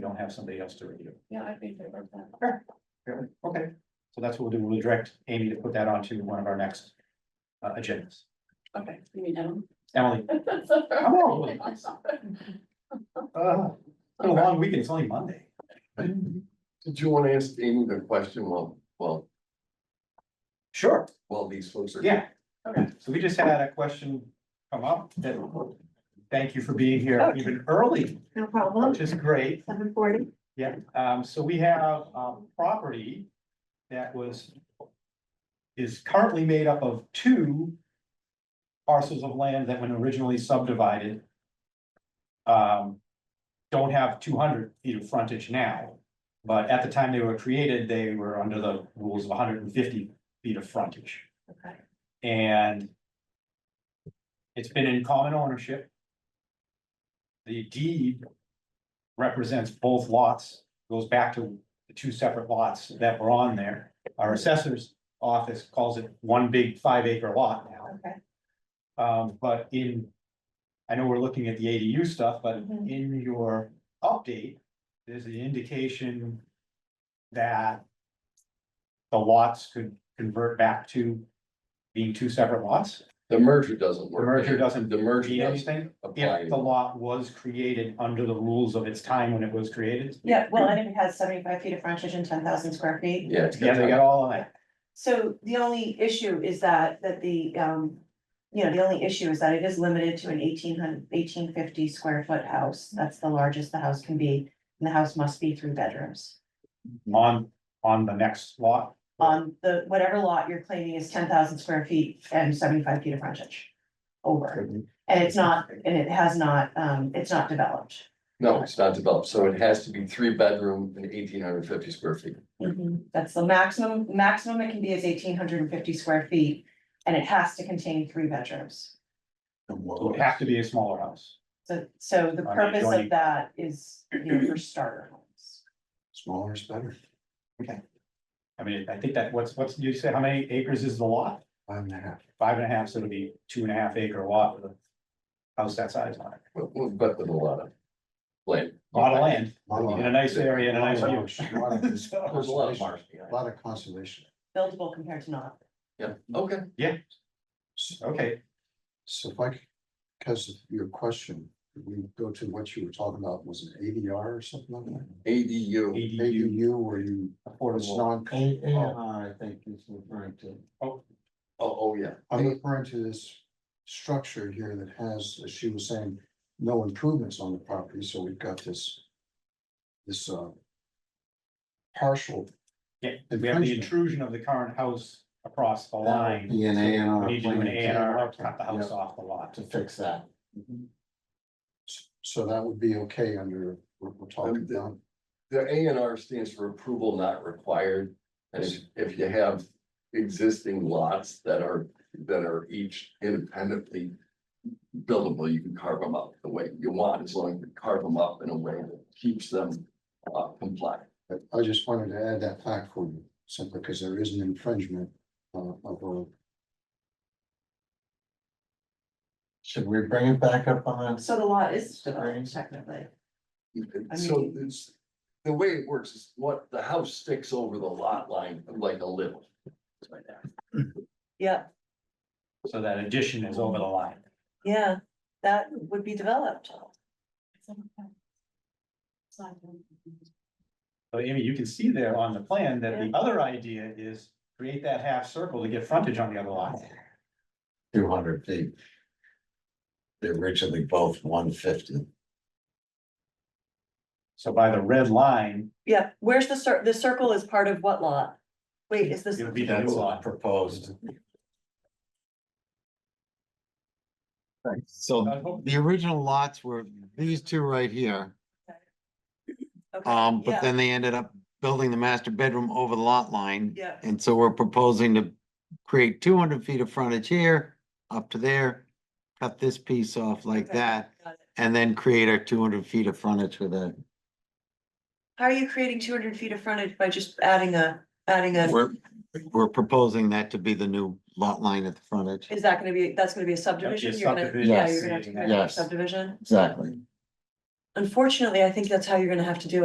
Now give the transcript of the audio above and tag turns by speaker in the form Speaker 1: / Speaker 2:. Speaker 1: don't have somebody else to review.
Speaker 2: Yeah, I'd be in favor of that.
Speaker 1: Really? Okay, so that's what we'll do. We'll direct Amy to put that onto one of our next uh, agendas.
Speaker 2: Okay, you mean Adam?
Speaker 1: Emily, come on. Uh, it's been a long weekend. It's only Monday.
Speaker 3: Did you want to ask Amy the question while, while,
Speaker 1: Sure,
Speaker 3: while these folks are?
Speaker 1: yeah.
Speaker 2: Okay.
Speaker 1: So we just had a question come up that, thank you for being here even early,
Speaker 4: No problem,
Speaker 1: which is great.
Speaker 4: seven forty.
Speaker 1: Yeah, um, so we have, um, property that was. Is currently made up of two. Parcels of land that when originally subdivided. Um. Don't have two hundred feet of frontage now, but at the time they were created, they were under the rules of hundred and fifty feet of frontage.
Speaker 2: Okay.
Speaker 1: And. It's been in common ownership. The deed represents both lots, goes back to the two separate lots that were on there. Our assessor's office calls it one big five acre lot now.
Speaker 2: Okay.
Speaker 1: Um, but in, I know we're looking at the ADU stuff, but
Speaker 2: Mhm.
Speaker 1: in your update, there's the indication that the lots could convert back to being two separate lots.
Speaker 3: The merger doesn't
Speaker 1: The
Speaker 3: work.
Speaker 1: merger doesn't
Speaker 3: The merger
Speaker 1: mean
Speaker 3: doesn't
Speaker 1: anything.
Speaker 3: apply.
Speaker 1: If the lot was created under the rules of its time when it was created,
Speaker 5: Yeah, well, and it has seventy-five feet of frontage and ten thousand square feet.
Speaker 3: Yeah. it's
Speaker 1: yeah, they got all of that.
Speaker 5: So the only issue is that, that the, um, you know, the only issue is that it is limited to an 1850 square foot house. That's the largest the house can be, and the house must be three bedrooms.
Speaker 1: on, on the next lot.
Speaker 5: On Um, the, whatever lot you're claiming is ten thousand square feet and seventy-five feet of frontage over. And it's not, and it has not, um, it's not developed.
Speaker 3: No, it's not developed, so it has to be three bedroom and eighteen hundred fifty square feet.
Speaker 5: Mm-hmm. That's the maximum, maximum it can be is eighteen hundred and fifty square feet, and it has to contain three bedrooms.
Speaker 1: It would have to be a smaller house.
Speaker 5: So, so the
Speaker 1: On
Speaker 5: purpose
Speaker 1: adjoining-
Speaker 5: of that is, you know, for starter homes.
Speaker 3: Smaller is better.
Speaker 1: I mean, I think that what's, what's, you said, how many acres is the lot?
Speaker 3: Five and a half.
Speaker 1: Five and a half, so it'll be two and a half acre lot with a house that size on it.
Speaker 3: But, but with a lot of land.
Speaker 1: A Lot of land
Speaker 6: Lot of-
Speaker 1: in a nice area and a nice view.
Speaker 6: lot of-
Speaker 1: So,
Speaker 3: There's a lot of
Speaker 6: Conservation,
Speaker 3: marsh
Speaker 6: a
Speaker 3: behind. it.
Speaker 6: lot of conservation.
Speaker 5: Buildable compared to not.
Speaker 3: Yeah, okay.
Speaker 1: Okay,
Speaker 6: So if I, could- because of your question, we go to what you were talking about, was it ADR or something like that?
Speaker 3: ADU,
Speaker 1: ADU
Speaker 6: ADU where you, it's
Speaker 1: affordable.
Speaker 6: non.
Speaker 7: AAR, I think is referring to.
Speaker 3: oh, oh, yeah.
Speaker 6: I'm referring to this structure here that has, as she was saying, no improvements on the property, so we've got this. This uh. Partial.
Speaker 1: Yeah, we have the intrusion of the current house across the line.
Speaker 7: Be an A and
Speaker 1: We
Speaker 7: R.
Speaker 1: need to do an A and R, cut the house
Speaker 7: Yep,
Speaker 1: off the lot.
Speaker 7: To fix that.
Speaker 6: So that would be okay under, we're we're talking
Speaker 3: Um, the-
Speaker 6: about.
Speaker 3: The A and R stands for approval not required. And if, if you have existing lots that are, that are each independently buildable, you can carve them up the way you want, as long as you carve them up in a way that keeps them uh, compliant.
Speaker 6: But I just wanted to add that fact for you, simply because there is an infringement uh, of a
Speaker 7: Should we bring it back up on?
Speaker 5: So the lot is
Speaker 7: Agreed.
Speaker 5: developed technically.
Speaker 3: So
Speaker 5: mean-
Speaker 3: it's, the way it works is what, the house sticks over the lot line like a little.
Speaker 5: Yeah,
Speaker 1: So that addition is over the line.
Speaker 5: yeah, that would be developed.
Speaker 1: So Amy, you can see there on the plan that the other idea is create that half circle to get frontage on the other lot.
Speaker 7: Two hundred feet. They're originally both one fifty.
Speaker 1: So by the red line,
Speaker 5: Yeah, where's the cir- the circle is part of what lot? Wait, is this?
Speaker 1: it'll be the new lot.
Speaker 7: proposed.
Speaker 1: I
Speaker 7: So
Speaker 1: was hoping-
Speaker 7: the original lots were these two right here,
Speaker 5: okay,
Speaker 7: um,
Speaker 5: yeah,
Speaker 7: but then they ended up building the master bedroom over the lot line.
Speaker 5: Yeah,
Speaker 7: And so we're proposing to create two hundred feet of frontage here, up to there, cut this piece off like
Speaker 5: Okay.
Speaker 7: that,
Speaker 5: got it.
Speaker 7: and then create our two hundred feet of frontage with a,
Speaker 5: How are you creating two hundred feet of frontage by just adding a, adding a,
Speaker 7: we're, we're proposing that to be the new lot line at the frontage.
Speaker 5: is that gonna be, that's gonna be a subdivision? You're gonna-
Speaker 1: subdivision.
Speaker 5: Yeah, you're gonna have to
Speaker 1: Yes.
Speaker 5: create a
Speaker 7: Yes.
Speaker 5: subdivision.
Speaker 7: Exactly.
Speaker 5: Unfortunately, I think that's how you're gonna have to do it.